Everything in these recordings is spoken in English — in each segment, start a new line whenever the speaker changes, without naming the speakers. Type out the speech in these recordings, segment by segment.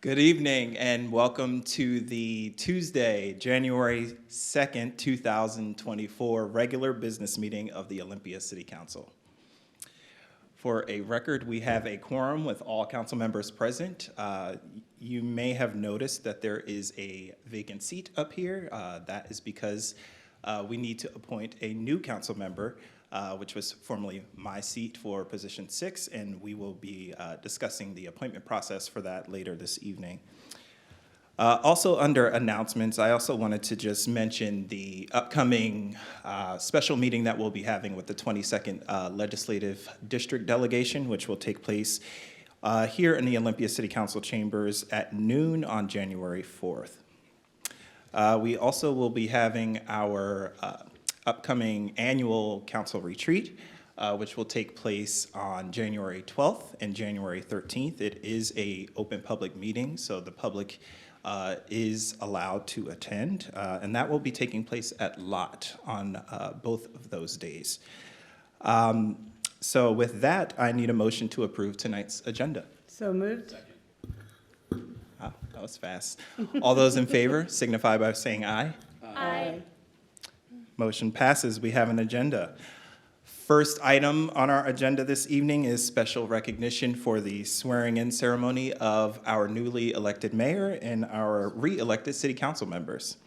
Good evening and welcome to the Tuesday, January 2nd, 2024 regular business meeting of the Olympia City Council. For a record, we have a quorum with all council members present. Uh, You may have noticed that there is a vacant seat up here. Uh, That is because uh, we need to appoint a new council member, uh, which was formerly my seat for position six, and we will be uh, discussing the appointment process for that later this evening. Uh, Also, under announcements, I also wanted to just mention the upcoming uh, special meeting that we'll be having with the 22nd uh, Legislative District Delegation, which will take place uh, here in the Olympia City Council chambers at noon on January 4th. Uh, We also will be having our uh, upcoming annual council retreat, uh, which will take place on January 12th and January 13th. It is a open public meeting, so the public uh, is allowed to attend, uh, and that will be taking place at Lot on uh, both of those days. Um, So with that, I need a motion to approve tonight's agenda.
So moved?
Ah, That was fast. All those in favor signify by saying aye.
Aye.
Motion passes. We have an agenda. First item on our agenda this evening is special recognition for the swearing-in ceremony of our newly elected mayor and our re-elected city council members.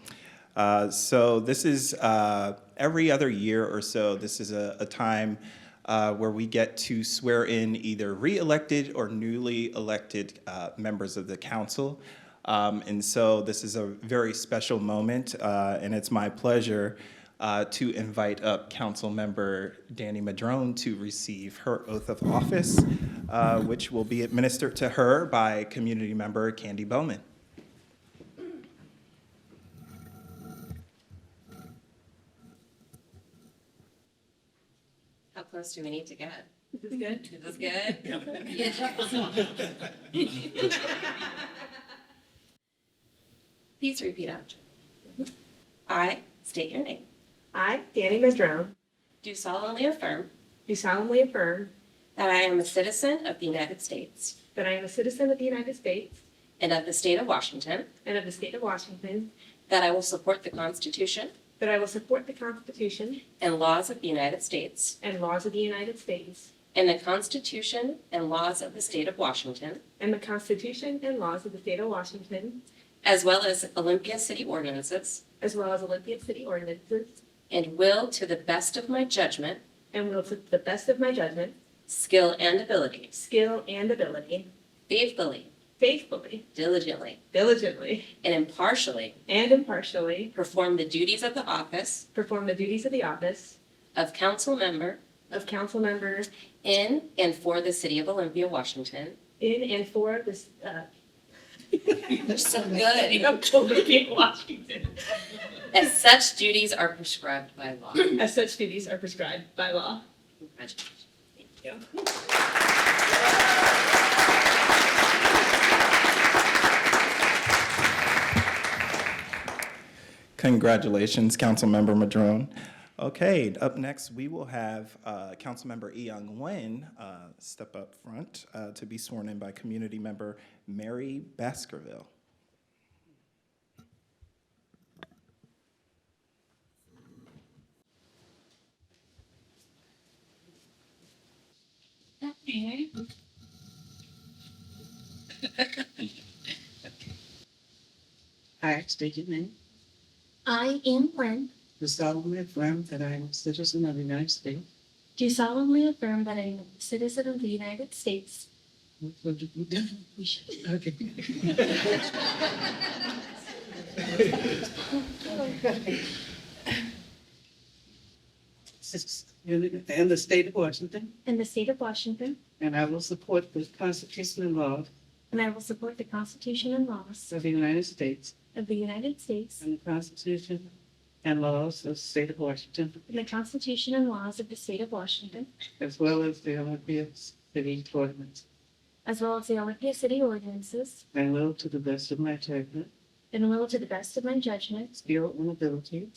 Uh, So this is uh, every other year or so, this is a a time uh, where we get to swear in either re-elected or newly elected uh, members of the council. Um, and so this is a very special moment, uh, and it's my pleasure uh, to invite up Councilmember Danny Madrone to receive her oath of office, uh, which will be administered to her by community member Candy Bowman.
How close do we need to get? Is this good? Is this good? Please repeat after. me. I state your name.
I, Danny Madrone,
Do solemnly affirm
do solemnly affirm
that I am a citizen of the United States
that I am a citizen of the United States
and of the state of Washington,
and of the state of Washington,
that I will support the Constitution
that I will support the Constitution
and laws of the United States
and laws of the United States
and the Constitution and laws of the state of Washington,
and the Constitution and laws of the state of Washington,
as well as Olympia city ordinances,
as well as Olympia City ordinances,
and will, to the best of my judgment,
and will, to the best of my judgment,
skill, and ability,
skill, and ability,
faithfully,
faithfully,
diligently,
diligently,
and impartially
and impartially
perform the duties of the office
perform the duties of the office
of council member
of council member
in and for the city of Olympia, Washington.
in and for this, uh,
They're so good.
of Olympia, Washington,
As such duties are prescribed by law.
as such duties are prescribed by law.
Congratulations. Thank you.
Congratulations, Councilmember Madrone. Okay, up next, we will have uh, Councilmember Eyoung Wen uh, step up front uh, to be sworn in by community member Mary Baskerville.
Okay.
I state your name.
I, Ian Nguyen,
Do solemnly affirm that I am a citizen of the United States
do solemnly affirm that I am a citizen of the United States
okay. and the state of Washington,
and the state of Washington,
and I will support the Constitution and laws
and I will support the Constitution and laws
of the United States
of the United States
and the Constitution and laws of the state of Washington,
and the Constitution and laws of the state of Washington,
as well as the Olympia City ordinance,
as well as the Olympia City ordinances,
and will, to the best of my judgment,
and will to the best of my judgment
skill, and ability,